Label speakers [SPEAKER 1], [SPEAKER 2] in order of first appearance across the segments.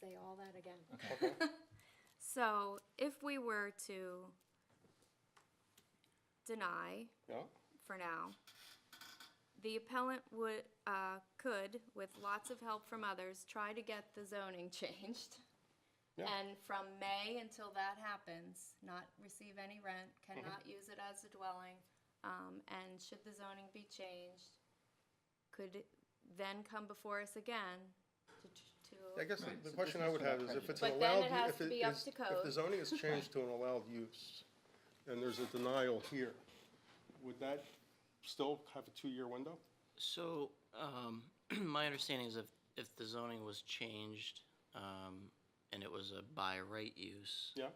[SPEAKER 1] say all that again.
[SPEAKER 2] Okay.
[SPEAKER 1] So if we were to deny
[SPEAKER 2] Yeah.
[SPEAKER 1] for now, the appellant would, uh, could, with lots of help from others, try to get the zoning changed.
[SPEAKER 2] Yeah.
[SPEAKER 1] And from May until that happens, not receive any rent, cannot use it as a dwelling. Um, and should the zoning be changed, could then come before us again to, to.
[SPEAKER 2] I guess the-
[SPEAKER 3] Right,
[SPEAKER 2] the
[SPEAKER 3] so
[SPEAKER 2] question
[SPEAKER 3] this
[SPEAKER 2] I
[SPEAKER 3] is
[SPEAKER 2] would
[SPEAKER 3] not
[SPEAKER 2] have is if it's
[SPEAKER 3] prejudicial.
[SPEAKER 2] an
[SPEAKER 1] But then
[SPEAKER 2] allowed.
[SPEAKER 1] it has
[SPEAKER 2] if
[SPEAKER 1] to be up
[SPEAKER 2] is-
[SPEAKER 1] to
[SPEAKER 2] If the
[SPEAKER 1] code.
[SPEAKER 2] zoning is changed to an allowed use, and there's a denial here, would that still have a two-year window?
[SPEAKER 4] So, um, my understanding is if, if the zoning was changed, um, and it was a by right use.
[SPEAKER 2] Yeah.
[SPEAKER 4] um,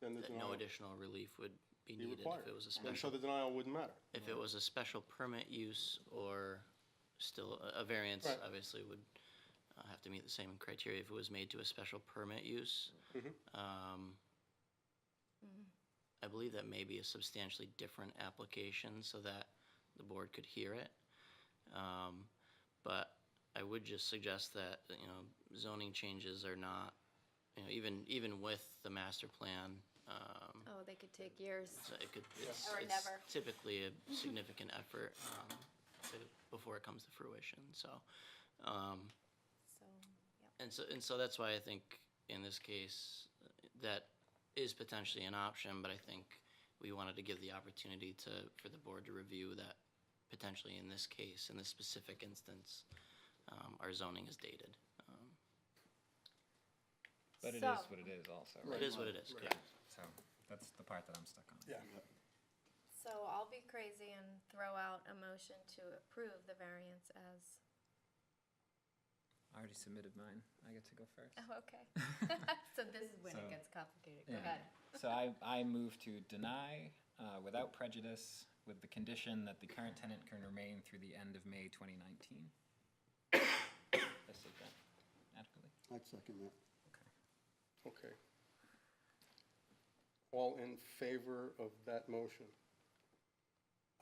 [SPEAKER 2] Then the
[SPEAKER 4] That no
[SPEAKER 2] denial-
[SPEAKER 4] additional relief would be
[SPEAKER 2] Be
[SPEAKER 4] needed
[SPEAKER 2] required.
[SPEAKER 4] if it was a
[SPEAKER 2] And so
[SPEAKER 4] special,
[SPEAKER 2] the denial wouldn't matter.
[SPEAKER 4] if it was a special permit use or still a- a variance,
[SPEAKER 2] Right.
[SPEAKER 4] obviously would uh, have to meet the same criteria if it was made to a special permit use.
[SPEAKER 2] Mhm.
[SPEAKER 4] Um, I believe that may be a substantially different application so that the board could hear it. Um, But I would just suggest that, you know, zoning changes are not, you know, even, even with the master plan, um,
[SPEAKER 1] Oh, they could take years.
[SPEAKER 4] so it could, it's
[SPEAKER 1] Or
[SPEAKER 4] it's
[SPEAKER 1] never.
[SPEAKER 4] typically a significant effort um, to- before it comes to fruition, so. um,
[SPEAKER 1] So,
[SPEAKER 4] and so, and so that's why I think in this case, uh, that is potentially an option, but I think we wanted to give the opportunity to, for the board to review that potentially in this case, in this specific instance, um, our zoning is dated. Um,
[SPEAKER 3] But it is
[SPEAKER 1] So-
[SPEAKER 3] what it is also.
[SPEAKER 4] It is what it is,
[SPEAKER 2] Right.
[SPEAKER 4] correct.
[SPEAKER 3] So that's the part that I'm stuck on.
[SPEAKER 2] Yeah.
[SPEAKER 1] So I'll be crazy and throw out a motion to approve the variance as.
[SPEAKER 3] I already submitted mine. I get to go first.
[SPEAKER 1] Oh, okay. So this is when it
[SPEAKER 3] So-
[SPEAKER 1] gets complicated. Go
[SPEAKER 3] Yeah.
[SPEAKER 1] ahead.
[SPEAKER 3] So I, I move to deny uh, without prejudice with the condition that the current tenant can remain through the end of May 2019. I said that adequately.
[SPEAKER 5] I'd second that.
[SPEAKER 2] Okay. All in favor of that motion?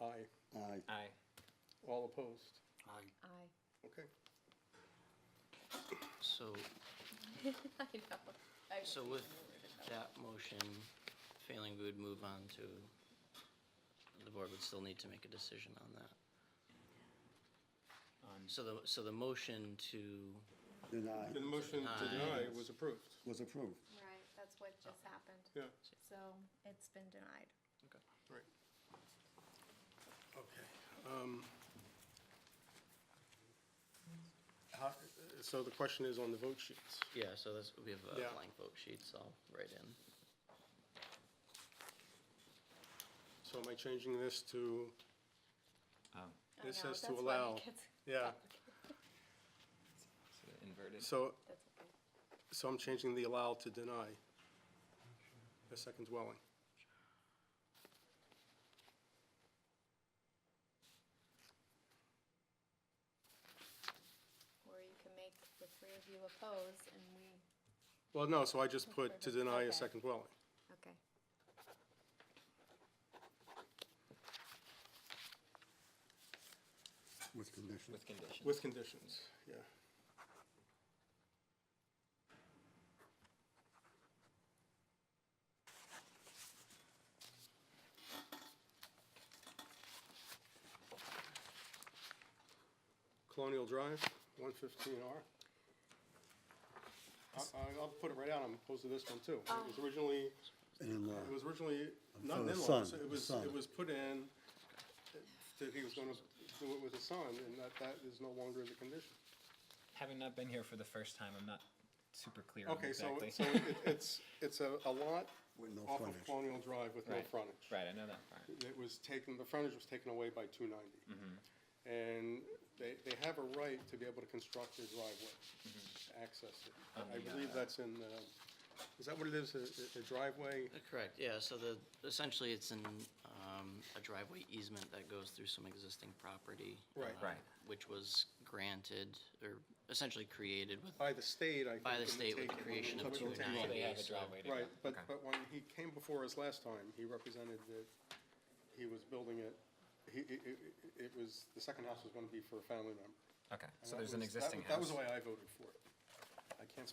[SPEAKER 2] Aye.
[SPEAKER 5] Aye.
[SPEAKER 3] Aye.
[SPEAKER 2] All opposed?
[SPEAKER 1] Aye.
[SPEAKER 2] Okay.
[SPEAKER 4] So,
[SPEAKER 1] I know. I
[SPEAKER 4] so with that motion failing, we would move on to, the board would still need to make a decision on that.
[SPEAKER 3] On-
[SPEAKER 4] So the, so the motion to,
[SPEAKER 5] Deny.
[SPEAKER 2] The motion to deny was approved.
[SPEAKER 5] Was approved.
[SPEAKER 1] Right, that's what just happened.
[SPEAKER 2] Yeah.
[SPEAKER 1] So it's been denied.
[SPEAKER 2] Right. Okay. um, how- So the question is on the vote sheets.
[SPEAKER 4] yeah, so this, we have
[SPEAKER 2] Yeah.
[SPEAKER 4] a blank vote sheet, so I'll write in.
[SPEAKER 2] So am I changing this to,
[SPEAKER 3] Oh,
[SPEAKER 1] I
[SPEAKER 2] This
[SPEAKER 1] know,
[SPEAKER 2] says to
[SPEAKER 1] that's why it
[SPEAKER 2] allow.
[SPEAKER 1] gets
[SPEAKER 2] yeah,
[SPEAKER 1] complicated.
[SPEAKER 3] so inverted.
[SPEAKER 2] so,
[SPEAKER 1] That's okay.
[SPEAKER 2] so I'm changing the allow to deny a second dwelling.
[SPEAKER 1] Or you can make the three of you oppose and we.
[SPEAKER 2] Well, no, so I just put to deny a second dwelling.
[SPEAKER 1] Okay.
[SPEAKER 5] With condition.
[SPEAKER 3] With conditions.
[SPEAKER 2] With conditions, yeah. Colonial Drive, one fifteen R. I, I- I'll put it right out, I'm opposed to this one too. It was originally,
[SPEAKER 5] An in-law.
[SPEAKER 2] it was originally, not
[SPEAKER 5] For
[SPEAKER 2] an
[SPEAKER 5] the
[SPEAKER 2] in-law,
[SPEAKER 5] son,
[SPEAKER 2] it
[SPEAKER 5] the
[SPEAKER 2] was,
[SPEAKER 5] son.
[SPEAKER 2] it was put in that he was gonna do it with his son, and that, that is no longer the condition.
[SPEAKER 3] Having not been here for the first time, I'm not super clear on
[SPEAKER 2] Okay, so,
[SPEAKER 3] exactly.
[SPEAKER 2] so it- it's, it's a, a lot
[SPEAKER 5] With no
[SPEAKER 2] off of
[SPEAKER 5] frontage.
[SPEAKER 2] Colonial Drive with no
[SPEAKER 3] Right.
[SPEAKER 2] frontage.
[SPEAKER 3] right, I know that part.
[SPEAKER 2] It was taken, the frontage was taken away by two ninety.
[SPEAKER 4] Mm-hmm.
[SPEAKER 2] And they, they have a right to be able to construct their driveway,
[SPEAKER 4] Mm-hmm.
[SPEAKER 2] to access it.
[SPEAKER 4] Oh,
[SPEAKER 3] On
[SPEAKER 2] I
[SPEAKER 3] the,
[SPEAKER 2] believe
[SPEAKER 3] uh,
[SPEAKER 2] that's in, uh, is that what it is, a- a a driveway?
[SPEAKER 4] Uh, Correct, yeah, so the, essentially, it's in um, a driveway easement that goes through some existing property.
[SPEAKER 2] Right.
[SPEAKER 4] uh,
[SPEAKER 3] Right.
[SPEAKER 4] Which was granted, or essentially created with,
[SPEAKER 2] By the state, I think.
[SPEAKER 4] by the
[SPEAKER 2] when they
[SPEAKER 4] state
[SPEAKER 2] take
[SPEAKER 4] with the
[SPEAKER 2] it, when
[SPEAKER 4] creation
[SPEAKER 2] they
[SPEAKER 4] of
[SPEAKER 2] take it.
[SPEAKER 4] 290.
[SPEAKER 3] Well, they have a
[SPEAKER 4] so-
[SPEAKER 3] driveway to go.
[SPEAKER 2] Right, but,
[SPEAKER 3] Okay.
[SPEAKER 2] but when he came before us last time, he represented that he was building it, he, it, it, it was, the second house was gonna be for a family member.
[SPEAKER 3] Okay,
[SPEAKER 2] And
[SPEAKER 3] so
[SPEAKER 2] that
[SPEAKER 3] there's an
[SPEAKER 2] was- that
[SPEAKER 3] existing
[SPEAKER 2] was- That
[SPEAKER 3] house.
[SPEAKER 2] was the way I voted for it. I can't